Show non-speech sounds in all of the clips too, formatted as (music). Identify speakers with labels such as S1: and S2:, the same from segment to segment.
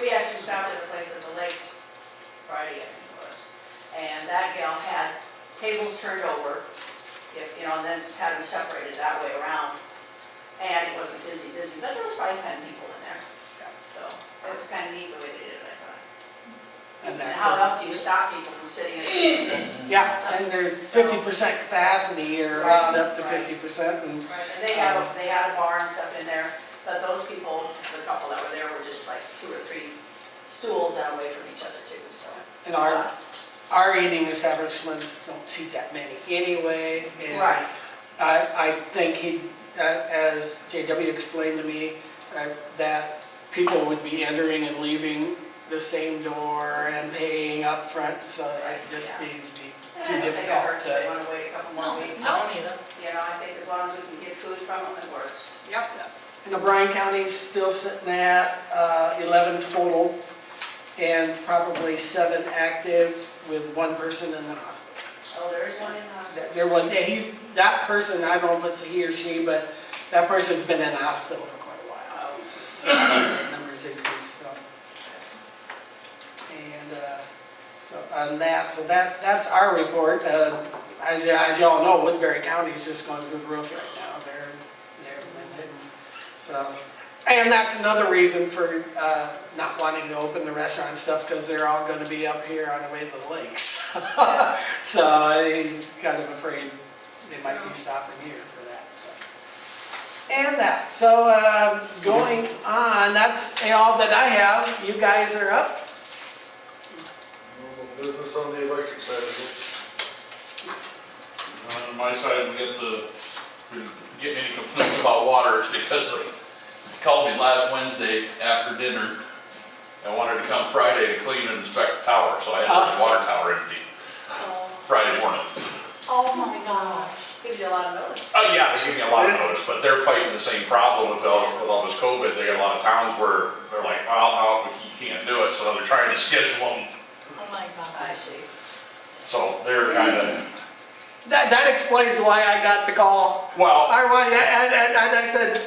S1: We actually stopped at a place at the lakes Friday, I think it was. And that gal had tables turned over, if, you know, and then had them separated that way around. And it wasn't busy, busy, but there was probably ten people in there. So it was kind of neat the way they did it, I thought.
S2: And that
S1: How
S2: doesn't-
S1: else do you stop people from sitting
S2: (laughs)
S1: in?
S2: Yeah, and they're fifty percent capacity or not up to fifty percent and,
S1: And they had, a- they had a bar and stuff in there, but those people, the couple that were there were just like two or three stools out away from each other too, so. Uh,
S2: and our, our eating establishments don't see that many anyway. and
S1: Right,
S2: I, I think he, uh, as JW explained to me, uh, that people would be entering and leaving the same door and paying up front, so it'd just be be
S1: And I
S2: too
S1: don't think it
S2: difficult
S1: hurts if they
S2: to.
S1: want to wait a couple
S3: No,
S1: more weeks.
S3: no, neither.
S1: You know, I think as long as we can get food from them, it works.
S3: Yep.
S2: And O'Brien County's still sitting at uh, 11 total and probably seven active with one person in the hospital.
S1: Oh, there is one in the hospital.
S2: That- There was, yeah, he's, that person, I don't know if it's he or she, but that person's been in the hospital for quite a while. So, the Numbers increase, so. And, uh, so, on that, so that, that's our report. Uh, As, y- as y'all know, Woodbury County's just going through the roof right now, they're, they're, been hitting. so. And that's another reason for, uh, not wanting to open the restaurant stuff, because they're all gonna be up here on the way to the lakes. (laughs) So he's kind of afraid they might be stopping here for that, so. And that, so um, going on, that's all that I have. You guys are up.
S4: Normal Business on the electric side of
S5: On my side, we get the, we get any complaints about water is because they called me last Wednesday after dinner and wanted to come Friday to clean and inspect the tower, so I had the water tower empty Friday morning.
S3: Oh my gosh.
S1: Gives you a lot of notice.
S5: Oh, yeah, they gave me a lot of notice, but they're fighting the same problem with all, with all this COVID. They got a lot of towns where they're like, well, no, you can't do it, so they're trying to schedule them.
S3: Oh
S1: I
S3: my gosh.
S1: see.
S5: So they're kind of,
S2: That, that explains why I got the call.
S5: well,
S2: I, wa- and, and, and I said,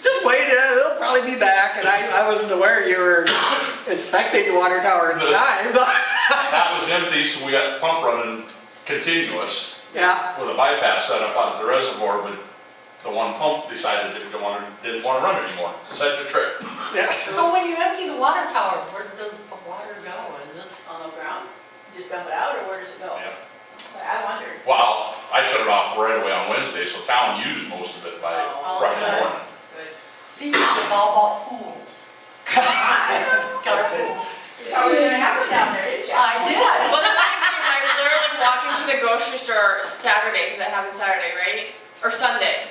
S2: just wait, uh, they'll probably be back. And I, I wasn't aware you were inspecting the water tower at the time. (laughs) so-
S5: that was empty, so we got the pump running continuous.
S2: Yeah,
S5: with a bypass set up out at the reservoir, but the one pump decided it didn't want to, didn't want to run anymore, decided to trip.
S2: yeah.
S3: So when you empty the water tower, where does the water go? Is this?
S1: On the ground, you just dump it out or where does it go?
S5: Yeah.
S1: I wondered.
S5: Well, I shut it off right away on Wednesday, so town used most of it by
S1: Oh,
S5: Friday
S3: okay.
S5: morning.
S1: Good.
S3: See, we should all bought pools. Got a pool.
S1: Oh, you didn't have it down there, did you?
S3: I did.
S6: Well, then I, I literally walk into the grocery store Saturday, because that happened Saturday, right? Or Sunday,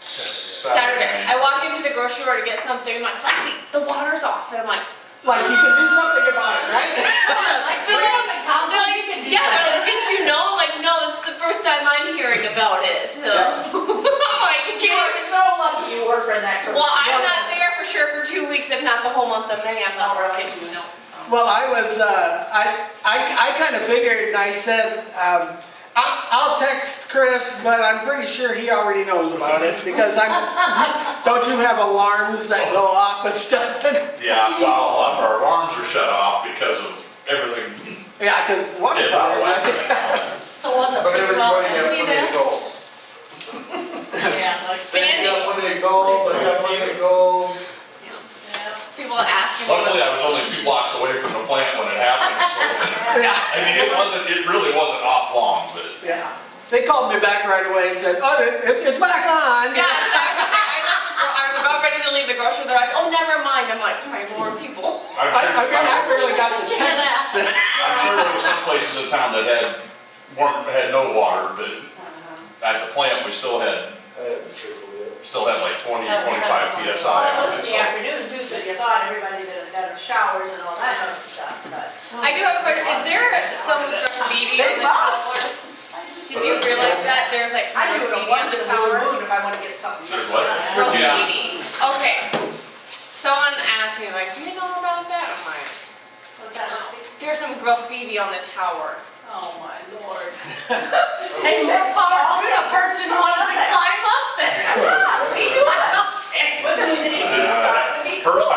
S6: Saturday. I walk into the grocery store to get something, I'm like, Lexi, the water's off, and I'm like, (laughs)
S2: Like you can do something about it, right?
S3: Like, so you're like,
S6: they're
S3: council, you can do
S6: like, yeah,
S3: that.
S6: they're like, didn't you know? I'm like, no, this is the first time I'm hearing about it, so.
S2: Yeah.
S6: (laughs) I'm like,
S1: You
S6: "Get
S1: were
S6: it."
S1: so lucky you were in that. group.
S6: well, I'm not there for sure for two weeks, if not the whole month of May, I'm not
S1: Oh, really?
S6: working, no.
S2: Well, I was, uh, I, I, I kind of figured, and I said, um, I, I'll text Chris, but I'm pretty sure he already knows about it, because I'm, (laughs) don't you have alarms that go off and stuff? (laughs)
S5: Yeah, well, all of our alarms are shut off because of everything.
S2: Yeah, because one of
S5: is out of
S2: ours, I think,
S5: whack.
S3: So was it
S4: But
S3: pretty well
S4: everybody got plenty of
S3: empty then?
S4: goals.
S3: Yeah, like,
S4: Sandy
S6: Sandy.
S4: got plenty of goals, I got plenty of goals.
S3: yeah.
S6: People asking me.
S5: Luckily, I was only two blocks away from the plant when it happened, so.
S2: (laughs) yeah,
S5: I mean, it wasn't, it really wasn't off long, but
S2: yeah. They called me back right away and said, oh, it- it, it's back on.
S6: Yeah, I was, I was about ready to leave the grocery, they're like, oh, never mind, I'm like, my more people.
S5: I'm
S2: I, I mean, I
S5: sure,
S2: really got the text.
S5: I'm sure there were some places in town that had, weren't, had no water, but
S1: Uh-huh.
S5: at the plant, we still had,
S4: I haven't tripled yet.
S5: still had like 20, 25
S1: Well, it was in
S5: PSI. on it,
S1: the
S5: so.
S1: afternoon too, so you thought everybody that had had showers and all that other stuff, but.
S6: I do have a question, is there some sort of meeting
S1: They
S6: on the tower?
S1: must.
S6: Did you realize that there's like some
S1: I do
S6: sort of
S1: it
S6: meeting on
S1: once
S6: the
S1: in a blue
S6: tower?
S1: moon if I wanna get something.
S5: There's what?
S6: Girls'
S5: Yeah.
S6: meeting, okay. Someone asked me like, do you know about that? I'm like,
S1: What's that, Lexi?
S6: there's some graffiti on the tower.
S1: Oh, my lord.
S3: And so far, the person wanted to climb up there. (laughs)
S1: Yeah, we do it. With the city.
S5: Uh, First time